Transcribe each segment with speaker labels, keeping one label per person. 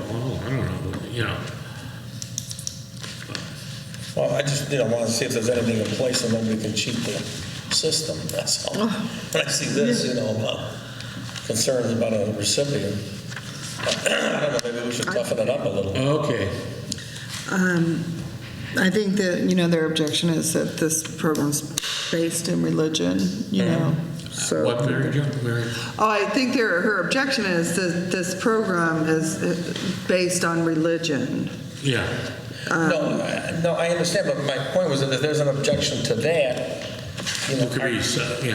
Speaker 1: you Oh, know.
Speaker 2: Well, I just, you know, want to see if there's anything in place and then we can cheat the system, that's all. When I see this, you know, about concerns about a recipient, I don't know, maybe we should toughen it up a little.
Speaker 1: Okay,
Speaker 3: I think that, you know, their objection is that this program's based in religion, you know, so.
Speaker 1: what, Mary Jo, Mary?
Speaker 3: Oh, I think their, her objection is that this program is uh, based on religion.
Speaker 1: Yeah,
Speaker 2: No, I- no, I understand, but my point was that if there's an objection to that, you know,
Speaker 1: it could be, uh,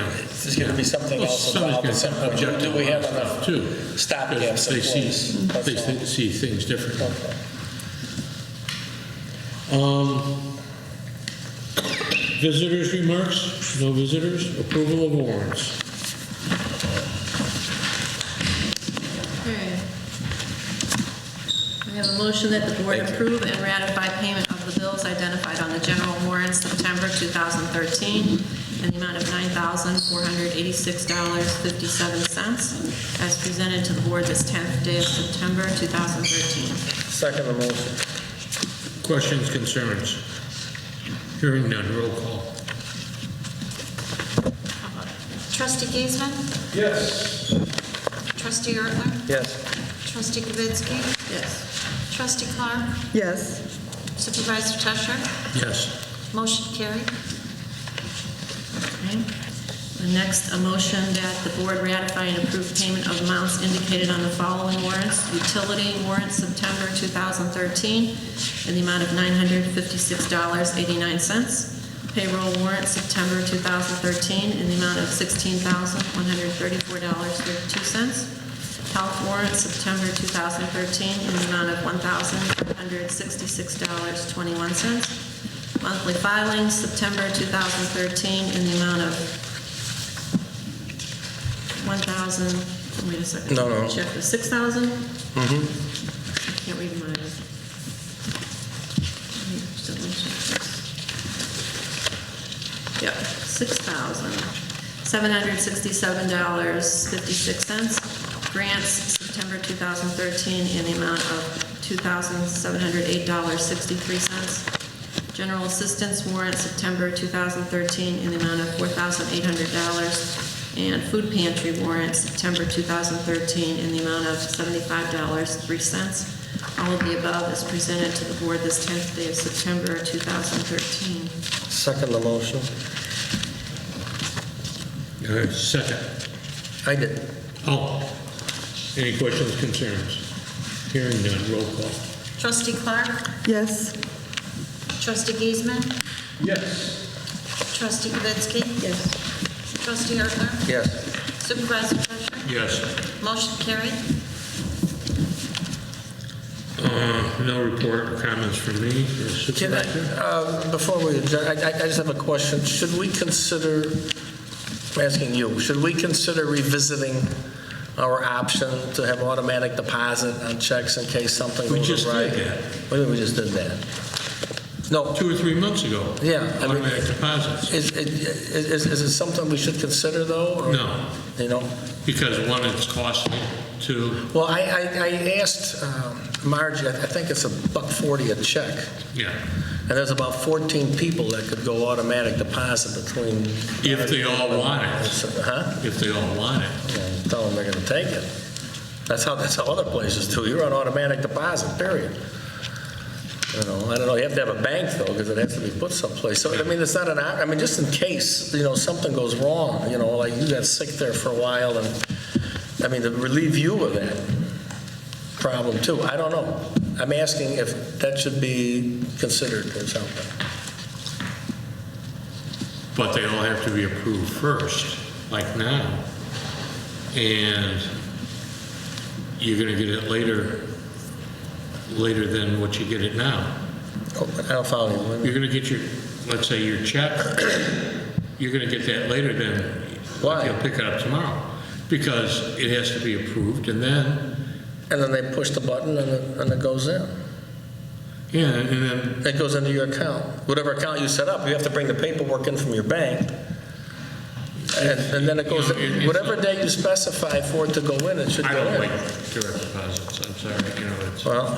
Speaker 1: yeah.
Speaker 2: there's going to be something
Speaker 1: Well,
Speaker 2: else involved
Speaker 1: somebody's
Speaker 2: at some
Speaker 1: gonna
Speaker 2: point.
Speaker 1: object to
Speaker 2: Do we
Speaker 1: a lot
Speaker 2: have
Speaker 1: of stuff, too.
Speaker 2: enough stopgaps in
Speaker 1: They see-
Speaker 2: place? That's
Speaker 1: They
Speaker 2: all.
Speaker 1: thi- see things differently.
Speaker 2: Okay.
Speaker 1: Um, Visitors' remarks? No visitors? Approval of warrants?
Speaker 4: Okay. Hmm. We have a motion that the board approve and ratify payment of the bills identified on the general warrant September 2013 in the amount of $9,486.57 as presented to the board this 10th day of September 2013.
Speaker 2: Second motion.
Speaker 1: Questions, concerns? Hearing none, roll call.
Speaker 5: Trustee Giesman? Yes. Trustee Ertler?
Speaker 2: Yes.
Speaker 5: Trustee Kavitsky?
Speaker 4: Yes.
Speaker 5: Trustee Clark?
Speaker 3: Yes,
Speaker 5: Supervisor Tusher?
Speaker 1: Yes.
Speaker 5: Motion carried.
Speaker 4: Okay. The next, a motion that the board ratify and approve payment of amounts indicated on the following warrants. Utility warrant September 2013 in the amount of $956.89. Payroll warrant September 2013 in the amount of $16,134.32. Health warrant September 2013 in the amount of $1,166.21. Monthly filings, September 2013, in the amount of 1,000, wait a second.
Speaker 2: No, no.
Speaker 4: Check the 6,000? Mm-hmm. Can't read mine. Let me just double check this. Yep, $6,767.56. Grants, September 2013, in the amount of $2,708.63. General assistance warrant, September 2013, in the amount of $4,800. And food pantry warrant, September 2013, in the amount of $75.03. All of the above is presented to the board this 10th day of September 2013.
Speaker 2: Second motion.
Speaker 1: Uh, Second.
Speaker 2: I did.
Speaker 1: Oh, any questions, concerns? Hearing none, roll call.
Speaker 5: Trustee Clark?
Speaker 3: yes.
Speaker 5: Trustee Giesman?
Speaker 1: Yes.
Speaker 5: Trustee Kavitsky?
Speaker 3: Yes.
Speaker 5: Trustee Ertler?
Speaker 2: Yes.
Speaker 5: Supervisor Tusher?
Speaker 1: Yes.
Speaker 5: Motion carried.
Speaker 1: Uh, No report or comments from me or
Speaker 2: Can I,
Speaker 1: supervisor?
Speaker 2: uh, before we, adjourn, I I- I just have a question. Should we consider, I'm asking you, should we consider revisiting our option to have automatic deposit on checks in case something
Speaker 1: We
Speaker 2: goes
Speaker 1: just
Speaker 2: awry?
Speaker 1: did that.
Speaker 2: Wait a minute, we just did that. No,
Speaker 1: Two or three months ago.
Speaker 2: Yeah, I mean-
Speaker 1: Automatic deposits.
Speaker 2: is it- is- is it something we should consider, though? or-
Speaker 1: No,
Speaker 2: You know?
Speaker 1: because one, it's costly. Two,
Speaker 2: Well, I I I asked um, Margie, I I think it's a buck 40 a check.
Speaker 1: yeah,
Speaker 2: And there's about 14 people that could go automatic deposit between...
Speaker 1: If they all want it.
Speaker 2: Huh?
Speaker 1: if they all want it.
Speaker 2: Well, Tell them they're going to take it. That's how, that's how other places do. You're on automatic deposit, period. You know, I don't know, you have to have a bank, though, because it has to be put someplace. So, I mean, it's not an, op- I mean, just in case, you know, something goes wrong, you know, like you got sick there for a while, and, I mean, to relieve you of that problem, too. I don't know. I'm asking if that should be considered or something.
Speaker 1: But they all have to be approved first, like now. And you're going to get it later, later than what you get it now.
Speaker 2: Oh, I don't follow you. Wait a minute.
Speaker 1: You're going to get your, let's say your check, you're going to get that later than,
Speaker 2: Why?
Speaker 1: like you'll pick it up tomorrow. Because it has to be approved and then,
Speaker 2: And then they push the button and it, and it goes in.
Speaker 1: yeah, and then,
Speaker 2: It goes into your account. Whatever account you set up, you have to bring the paperwork in from your bank. And, and then it goes,
Speaker 1: You know, it- it's-
Speaker 2: whatever day you specify for it to go in, it should
Speaker 1: I
Speaker 2: go
Speaker 1: don't like
Speaker 2: in.
Speaker 1: direct deposits, I'm sorry, you know, it's.
Speaker 2: Well,